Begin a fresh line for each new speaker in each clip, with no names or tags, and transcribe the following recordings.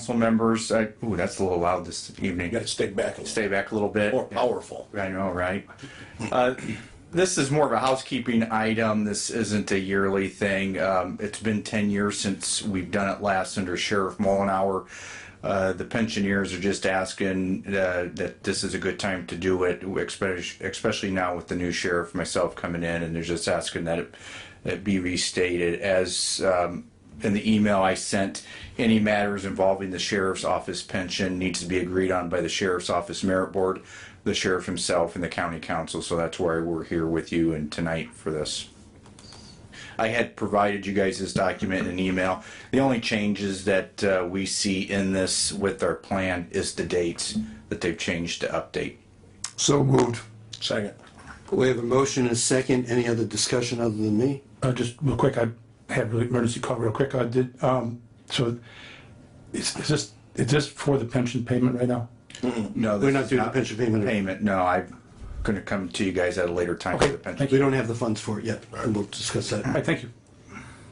council members, I, ooh, that's a little loud this
You
evening.
gotta stay back a little,
Stay back a little bit.
more powerful.
I know, right? Uh, This is more of a housekeeping item. This isn't a yearly thing. Um, It's been 10 years since we've done it last under Sheriff Mullenhour. Uh, The pensioners are just asking uh, that this is a good time to do it, especially especially now with the new sheriff, myself coming in, and they're just asking that it- it be restated as um, in the email I sent, any matters involving the sheriff's office pension needs to be agreed on by the sheriff's office merit board, the sheriff himself, and the county council. So that's why we're here with you and tonight for this. I had provided you guys this document in an email. The only changes that uh, we see in this with our plan is the dates that they've changed to update.
So moved.
Second,
We have a motion and a second. Any other discussion other than me?
Uh, just real quick, I had an emergency call real quick. I did, um, so is, is this, is this for the pension payment right now?
No,
We're not doing the pension payment.
Payment, no, I'm gonna come to you guys at a later time for the pension.
We don't have the funds for it yet, and we'll discuss that.
All right, thank you.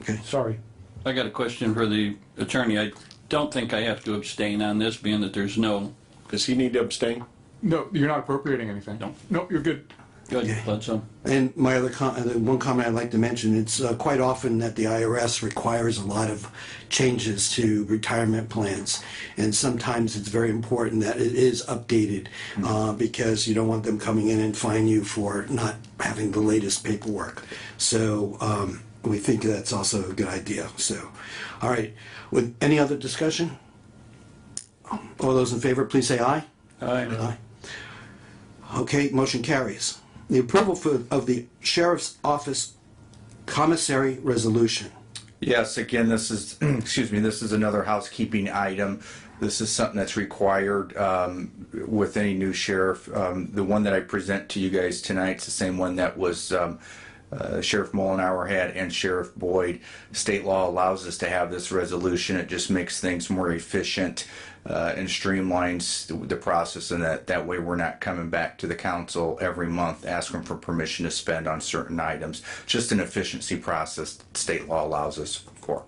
Okay.
Sorry.
I got a question for the attorney. I don't think I have to abstain on this, being that there's no,
does he need to abstain?
No, you're not appropriating anything.
No.
Nope, you're good.
good, thought so.
And my other com- uh, the one comment I'd like to mention, it's uh, quite often that the IRS requires a lot of changes to retirement plans. And sometimes it's very important that it is updated uh, because you don't want them coming in and fine you for not having the latest paperwork. So um, we think that's also a good idea. So, all right. With any other discussion? All those in favor, please say aye. Aye. Okay, motion carries. The approval for, of the sheriff's office commissary resolution.
Yes, again, this is, excuse me, this is another housekeeping item. This is something that's required um, with any new sheriff. Um, The one that I present to you guys tonight's the same one that was um, uh, Sheriff Mullenhour had and Sheriff Boyd. State law allows us to have this resolution. It just makes things more efficient uh, and streamlines the- the process and that, that way we're not coming back to the council every month asking for permission to spend on certain items. Just an efficiency process that state law allows us for.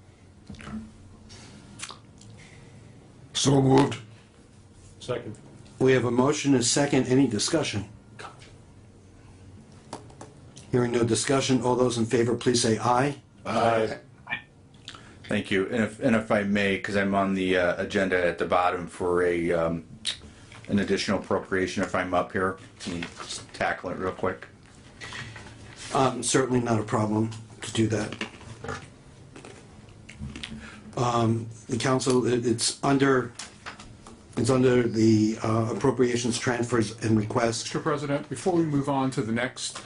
So moved.
Second.
We have a motion and a second. Any discussion? Hearing no discussion, all those in favor, please say aye.
Aye.
Thank you. And if, and if I may, because I'm on the uh, agenda at the bottom for a, um, an additional appropriation if I'm up here, can you just tackle it real quick?
Um, Certainly not a problem to do that. Um, Um, The council, it- it's under, it's under the uh, appropriations, transfers, and requests.
Mr. President, before we move on to the next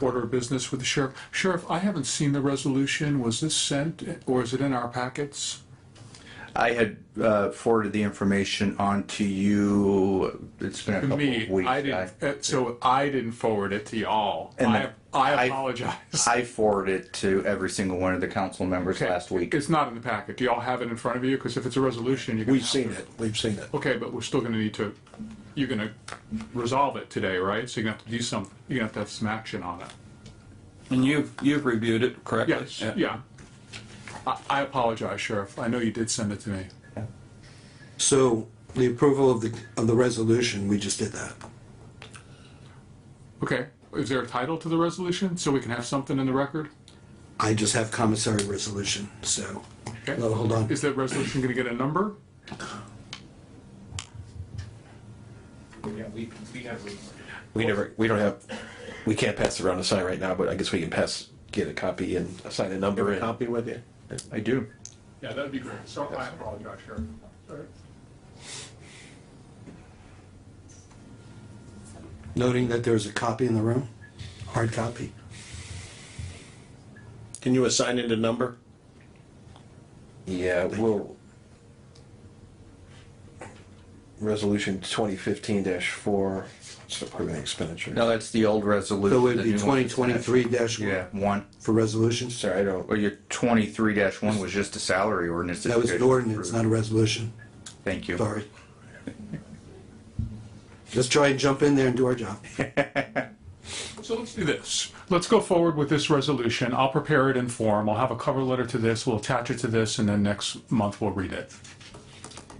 order of business with the sheriff, Sheriff, I haven't seen the resolution. Was this sent or is it in our packets?
I had uh, forwarded the information on to you. It's been a
To
couple
me,
of weeks.
I didn't, uh, so I didn't forward it to y'all.
And
I,
the-
I
I-
apologize.
I forwarded it to every single one of the council members
Okay,
last week.
It's not in the packet. Do y'all have it in front of you? Because if it's a resolution, you're gonna.
We've
have
seen
to-
it, we've seen it.
Okay, but we're still gonna need to, you're gonna resolve it today, right? So you're gonna have to do some, you're gonna have to have some action on it.
And you've, you've reviewed it correctly?
Yes, yeah. I, I apologize, Sheriff. I know you did send it to me.
So the approval of the, of the resolution, we just did that.
Okay, is there a title to the resolution so we can have something in the record?
I just have commissary resolution, so,
Okay.
no, hold on.
Is that resolution gonna get a number?
We never, we don't have, we can't pass around a sign right now, but I guess we can pass, get a copy and assign a number. Copy with you?
I do.
Yeah, that'd be great. So I apologize, Sheriff. All right.
Noting that there's a copy in the room, hard copy.
Can you assign it a number?
Yeah, well, resolution twenty fifteen four, it's approving expenditure.
No, that's the old resolution.
So it'd
The
be
new one.
twenty twenty-three dash
Yeah,
one
one.
for resolutions.
Sorry, I don't,
Well, your twenty-three dash one was just a salary ordinance.
That was an ordinance, not a resolution,
Thank you.
sorry. Just try and jump in there and do our job.
So let's do this. Let's go forward with this resolution. I'll prepare it in form. I'll have a cover letter to this. We'll attach it to this and then next month we'll read it.